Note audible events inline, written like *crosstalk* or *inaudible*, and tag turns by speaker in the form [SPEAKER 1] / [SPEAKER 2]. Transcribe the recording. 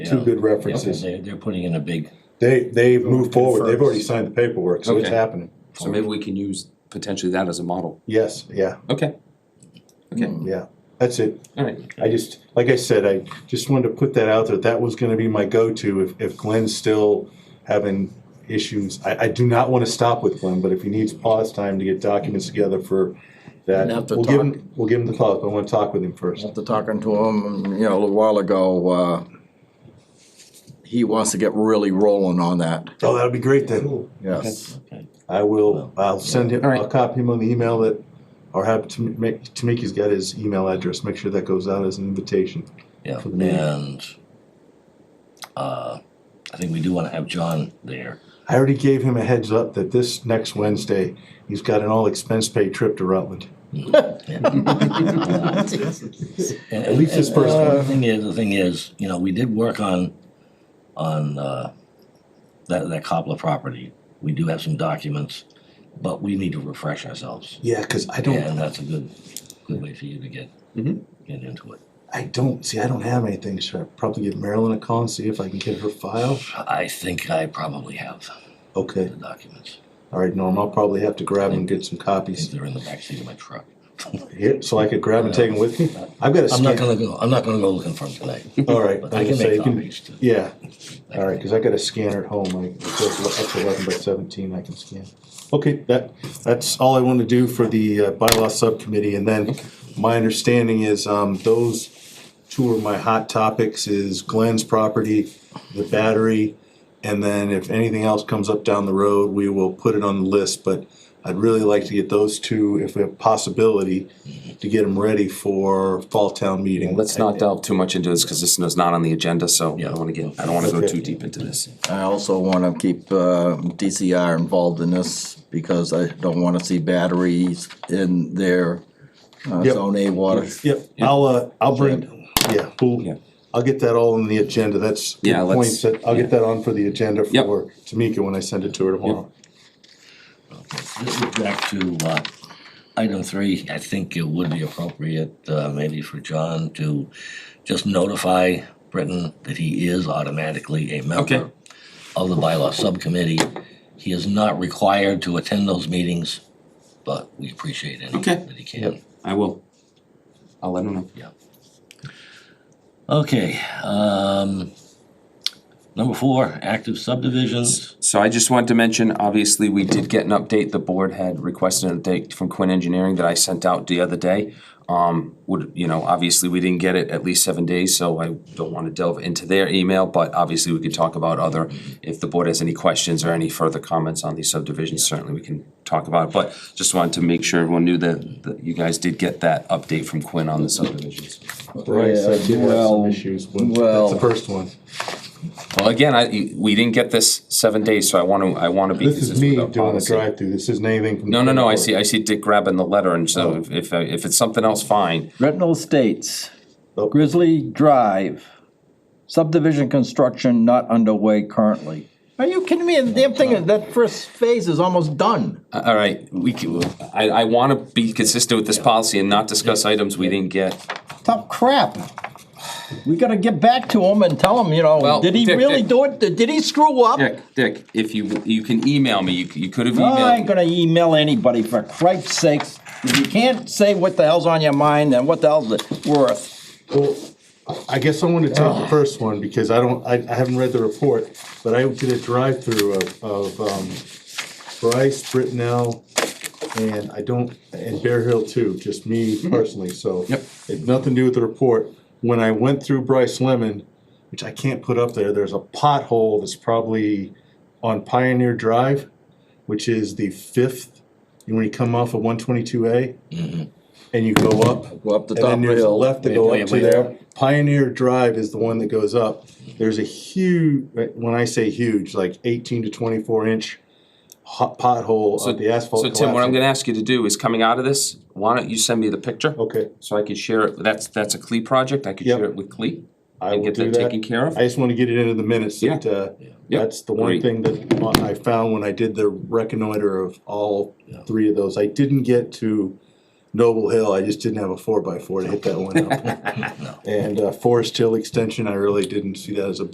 [SPEAKER 1] two good references.
[SPEAKER 2] They're, they're putting in a big,
[SPEAKER 1] They, they've moved forward, they've
[SPEAKER 3] confirms.
[SPEAKER 1] already signed the paperwork, so it's
[SPEAKER 3] Okay.
[SPEAKER 1] happening.
[SPEAKER 3] So maybe we can use potentially that as a model.
[SPEAKER 1] Yes, yeah,
[SPEAKER 3] Okay. Okay,
[SPEAKER 1] yeah, that's it.
[SPEAKER 3] all right.
[SPEAKER 1] I just, like I said, I just wanted to put that out there, that was gonna be my go-to if, if Glenn's still having issues. I, I do not wanna stop with Glenn, but if he needs pause time to get documents together for that,
[SPEAKER 4] And after
[SPEAKER 1] we'll give
[SPEAKER 4] talk.
[SPEAKER 1] him, we'll give him the clock, I wanna talk with him first.
[SPEAKER 4] After talking to him, you know, a little while ago, uh, he wants to get really rolling on that,
[SPEAKER 1] Oh, that'll be great then.
[SPEAKER 4] yes.
[SPEAKER 2] okay.
[SPEAKER 1] I will, I'll send him,
[SPEAKER 3] All right.
[SPEAKER 1] I'll copy him on the email that, or have Tam- make- Tamiki's got his email address, make sure that goes out as an invitation.
[SPEAKER 2] yeah,
[SPEAKER 1] For the meeting.
[SPEAKER 2] and, uh, I think we do wanna have John there.
[SPEAKER 1] I already gave him a heads up that this next Wednesday, he's got an all expense paid trip to Rutland.
[SPEAKER 2] And-
[SPEAKER 1] At least
[SPEAKER 2] and-
[SPEAKER 1] this first
[SPEAKER 2] and The
[SPEAKER 1] one.
[SPEAKER 2] thing is, the thing is, you know, we did work on, on, uh, that, that Coppola property. We do have some documents, but we need to refresh ourselves.
[SPEAKER 1] Yeah, cause I
[SPEAKER 2] And
[SPEAKER 1] don't, Mm-hmm.
[SPEAKER 2] that's a good, good way for you to get,
[SPEAKER 3] Mhm.
[SPEAKER 2] get into it.
[SPEAKER 1] I don't, see, I don't have anything, so I'll probably give Marilyn a call and see if I can get her file.
[SPEAKER 2] I think I probably have the
[SPEAKER 1] Okay,
[SPEAKER 2] documents.
[SPEAKER 1] all right, Norm, I'll probably have to grab and get some
[SPEAKER 2] I think
[SPEAKER 1] copies.
[SPEAKER 2] they're in the backseat of my truck.
[SPEAKER 1] Here, so I could grab and take them with me? I've got a
[SPEAKER 2] I'm not
[SPEAKER 1] scan.
[SPEAKER 2] gonna go, I'm not gonna go looking for them tonight.
[SPEAKER 1] All right.
[SPEAKER 2] But I can
[SPEAKER 1] so
[SPEAKER 2] make
[SPEAKER 1] you
[SPEAKER 2] copies too.
[SPEAKER 1] Yeah, all right, cause I got a scanner at home, I, it says up to eleven by seventeen, I can scan. Okay, that, that's all I want to do for the uh, bylaw subcommittee, and then my understanding is, um, those two are my hot topics, is Glenn's property, the battery, and then if anything else comes up down the road, we will put it on the list, but I'd really like to get those two, if we have possibility, to get them ready for fall town meeting.
[SPEAKER 3] Let's not delve too much into this because this is not on the agenda, so I
[SPEAKER 2] Yeah.
[SPEAKER 3] don't want to get, I don't want to go
[SPEAKER 1] Okay.
[SPEAKER 3] too deep into this.
[SPEAKER 4] I also wanna keep, uh, DCR involved in this, because I don't wanna see batteries in their uh,
[SPEAKER 1] Yep.
[SPEAKER 4] zone A water.
[SPEAKER 1] Yep, I'll, uh, I'll bring, yeah,
[SPEAKER 3] Yeah.
[SPEAKER 1] we'll, I'll get that all on the agenda, that's good
[SPEAKER 3] Yeah, let's-
[SPEAKER 1] points, that- I'll get that on for the agenda
[SPEAKER 3] Yep.
[SPEAKER 1] for Tamika when I send it to her tomorrow.
[SPEAKER 2] This is back to, uh, item three, I think it would be appropriate, uh, maybe for John to just notify Britton that he is automatically a
[SPEAKER 3] Okay.
[SPEAKER 2] member of the bylaw subcommittee. He is not required to attend those meetings, but we appreciate any
[SPEAKER 3] Okay.
[SPEAKER 2] that he can.
[SPEAKER 3] I will. I'll let him know.
[SPEAKER 2] Okay, um, number four, active subdivisions.
[SPEAKER 3] So I just wanted to mention, obviously, we did get an update, the board had requested an update from Quinn Engineering that I sent out the other day. Um, would, you know, obviously, we didn't get it at least seven days, so I don't wanna delve into their email, but obviously, we could talk about other, if the board has any questions or any further comments on these subdivisions, certainly we can talk about it, but just wanted to make sure everyone knew that, that you guys did get that update from Quinn on the subdivisions.
[SPEAKER 1] Bryce, I do have some
[SPEAKER 4] well,
[SPEAKER 1] issues, with-
[SPEAKER 4] well.
[SPEAKER 1] that's the first one.
[SPEAKER 3] Well, again, I, we didn't get this seven days, so I wanna, I wanna be
[SPEAKER 1] This is
[SPEAKER 3] consistent
[SPEAKER 1] me
[SPEAKER 3] with our
[SPEAKER 1] doing the
[SPEAKER 3] policy.
[SPEAKER 1] drive-through, this isn't anything from.
[SPEAKER 3] No, no, no, I see, I see Dick grabbing the letter, and so if- if, I- if it's something else, fine.
[SPEAKER 5] Retinal Estates,
[SPEAKER 1] Oh.
[SPEAKER 5] Grizzly Drive, subdivision construction not underway currently. Are you kidding me? The damn thing, that first phase is almost done.
[SPEAKER 3] A- Uh, All right, we, can- I, I wanna be consistent with this policy and not discuss items we didn't get.
[SPEAKER 5] Top crap. We gotta get back to him and tell him, you know,
[SPEAKER 3] Well,
[SPEAKER 5] did he
[SPEAKER 3] Dick,
[SPEAKER 5] really
[SPEAKER 3] Dick.
[SPEAKER 5] do it? Did he screw up? Oh,
[SPEAKER 3] Dick, Dick, if you, you can email me, you, c- you could have
[SPEAKER 5] I ain't
[SPEAKER 3] emailed.
[SPEAKER 5] gonna email anybody for Christ's sakes. If you can't say what the hell's on your mind, then what the hell's it worth?
[SPEAKER 1] Well, I guess I want to take the first one because I don't, I, I haven't read the report, but I did a drive-through of, of, um, Bryce, Brittenell, and I don't, and Bear Hill too, just me personally, so.
[SPEAKER 3] Yep.
[SPEAKER 1] It's nothing to do with the report. When I went through Bryce Lemon, which I can't put up there, there's a pothole that's probably on Pioneer Drive, which is the fifth, and when you come off of one twenty-two A, and you go up,
[SPEAKER 4] Go up the top
[SPEAKER 1] and then
[SPEAKER 4] of the
[SPEAKER 1] there's a
[SPEAKER 4] hill.
[SPEAKER 1] left to go up to there. Pioneer Drive is the one that goes up. There's a huge, when I say huge, like eighteen to twenty-four inch hot pothole
[SPEAKER 3] So-
[SPEAKER 1] of the asphalt.
[SPEAKER 3] So Tim, what I'm
[SPEAKER 1] collapsing.
[SPEAKER 3] gonna ask you to do is, coming out of this, why don't you send me the picture?
[SPEAKER 1] Okay,
[SPEAKER 3] So I could share it, that's, that's a Clee E project, I could
[SPEAKER 1] Oh. Yep.
[SPEAKER 3] share it with Clee.
[SPEAKER 1] I
[SPEAKER 3] E And
[SPEAKER 1] will
[SPEAKER 3] get
[SPEAKER 1] do
[SPEAKER 3] that taken
[SPEAKER 1] that.
[SPEAKER 3] care of.
[SPEAKER 1] I just wanna get it into the minutes
[SPEAKER 3] Yeah.
[SPEAKER 1] that, uh,
[SPEAKER 3] Yep.
[SPEAKER 1] that's the one
[SPEAKER 3] Great.
[SPEAKER 1] thing that I found when I did the reconnoiter of all three of those. I didn't get to Noble Hill, I just didn't have a
[SPEAKER 3] *laughs*
[SPEAKER 1] four by four to hit that one up. And, uh, Forest Hill Extension, I really didn't see that as a